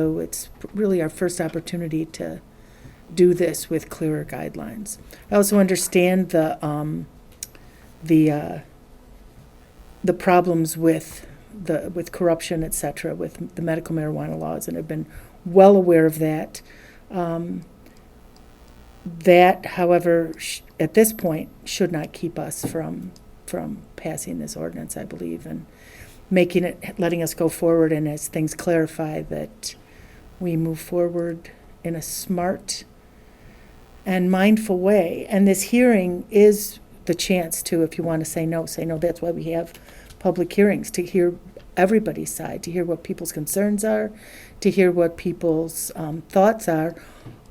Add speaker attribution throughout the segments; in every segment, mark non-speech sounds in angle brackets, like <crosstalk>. Speaker 1: So it's really our first opportunity to do this with clearer guidelines. I also understand the, um, the, uh, the problems with the, with corruption, et cetera, with the medical marijuana laws, and have been well aware of that. Um, that, however, sh- at this point, should not keep us from, from passing this ordinance, I believe, and making it, letting us go forward, and as things clarify, that we move forward in a smart and mindful way. And this hearing is the chance to, if you want to say no, say no. That's why we have public hearings, to hear everybody's side, to hear what people's concerns are, to hear what people's um, thoughts are.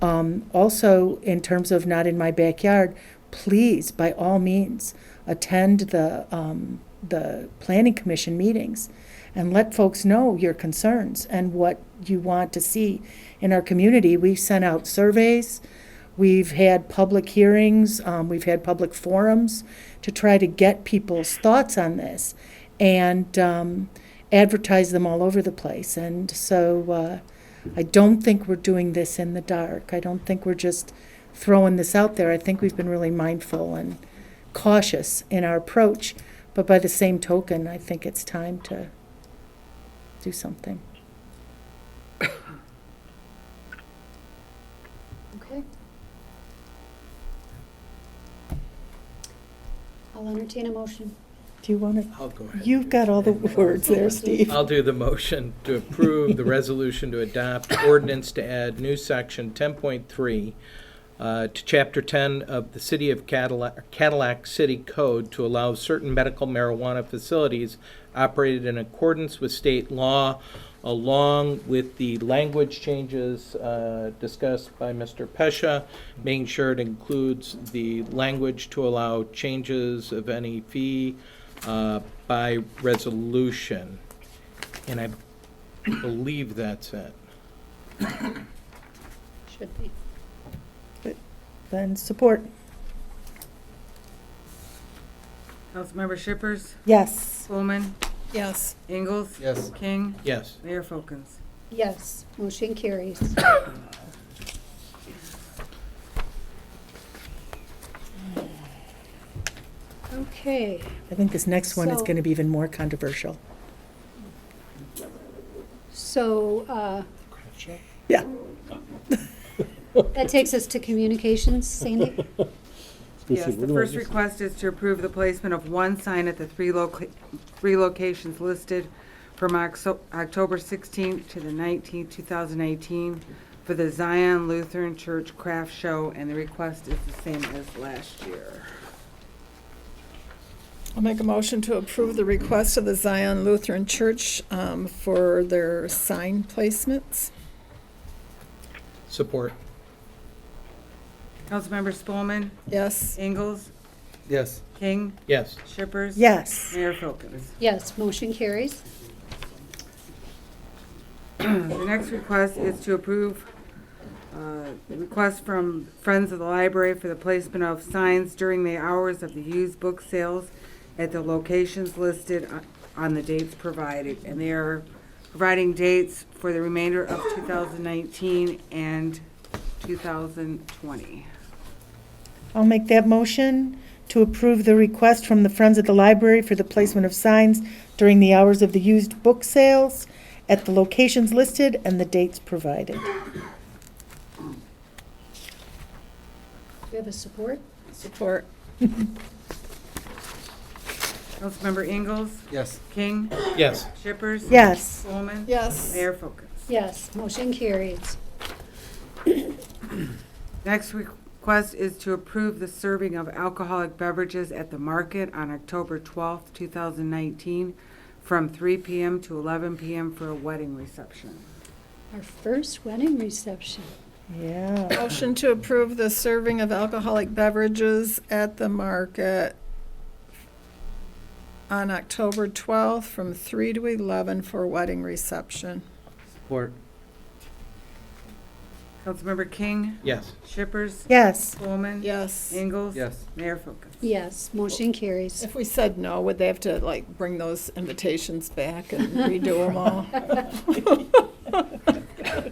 Speaker 1: Um, also, in terms of not in my backyard, please, by all means, attend the, um, the planning commission meetings and let folks know your concerns and what you want to see in our community. We've sent out surveys, we've had public hearings, um, we've had public forums to try to get people's thoughts on this and um, advertise them all over the place. And so uh, I don't think we're doing this in the dark. I don't think we're just throwing this out there. I think we've been really mindful and cautious in our approach. But by the same token, I think it's time to do something.
Speaker 2: Okay. I'll entertain a motion.
Speaker 1: Do you want to?
Speaker 3: I'll go ahead.
Speaker 1: You've got
Speaker 4: <laughs>
Speaker 1: all the words there, Steve.
Speaker 4: Uh,
Speaker 3: I'll do the motion to approve the resolution to adopt ordinance to add new section 10.3 uh, to Chapter 10 of the City of Cadillac, Cadillac City Code to allow certain medical marijuana facilities operated in accordance with state law, along with the language changes uh, discussed by Mr. Pesha, making sure it includes the language to allow changes of any fee uh, by resolution. And I believe that's it.
Speaker 2: Should be.
Speaker 1: Then support.
Speaker 5: Councilmember Shippers,
Speaker 1: Yes.
Speaker 5: Spelman,
Speaker 4: Yes,
Speaker 5: Ingalls.
Speaker 3: Yes.
Speaker 5: King,
Speaker 3: Yes.
Speaker 5: Mayor Folkins.
Speaker 2: Yes, motion carries. Okay,
Speaker 1: I think this next one is
Speaker 2: So-
Speaker 1: going to be even more controversial.
Speaker 2: so, uh,
Speaker 1: Yeah.
Speaker 2: that takes us to communications, Sandy?
Speaker 5: Yes, the first request is to approve the placement of one sign at the three loca, three locations listed from Oxo- October 16th to the 19th, 2018, for the Zion Lutheran Church Craft Show, and the request is the same as last year.
Speaker 4: I'll make a motion to approve the request of the Zion Lutheran Church um, for their sign placements.
Speaker 3: Support.
Speaker 5: Councilmember Spelman,
Speaker 4: Yes,
Speaker 5: Ingalls,
Speaker 3: Yes.
Speaker 5: King,
Speaker 3: Yes.
Speaker 5: Shippers.
Speaker 1: Yes.
Speaker 5: Mayor Folkins.
Speaker 2: Yes, motion carries.
Speaker 5: <clears throat> The next request is to approve uh, the request from Friends of the Library for the placement of signs during the hours of the used book sales at the locations listed on- on the dates provided. And they are providing dates for the remainder of 2019 and 2020.
Speaker 1: I'll make that motion to approve the request from the Friends at the Library for the placement of signs during the hours of the used book sales at the locations listed and the dates provided.
Speaker 2: Do we have a support?
Speaker 4: support.
Speaker 5: Councilmember Ingalls?
Speaker 3: Yes.
Speaker 5: King?
Speaker 3: Yes.
Speaker 5: Shippers?
Speaker 1: Yes.
Speaker 5: Spelman?
Speaker 4: Yes.
Speaker 5: Mayor Folkins?
Speaker 2: Yes, motion carries.
Speaker 5: Next request is to approve the serving of alcoholic beverages at the market on October 12th, 2019, from 3 p.m. to 11 p.m. for a wedding reception.
Speaker 2: Our first wedding reception.
Speaker 1: Yeah.
Speaker 4: Motion to approve the serving of alcoholic beverages at the market on October 12th from 3 to 11 for wedding reception.
Speaker 3: Support.
Speaker 5: Councilmember King,
Speaker 3: Yes.
Speaker 5: Shippers,
Speaker 1: Yes.
Speaker 5: Spelman,
Speaker 4: Yes.
Speaker 5: Ingalls.
Speaker 3: Yes.
Speaker 5: Mayor Folkins.
Speaker 2: Yes, motion carries.
Speaker 4: If we said no, would they have to like bring those invitations back and redo them all?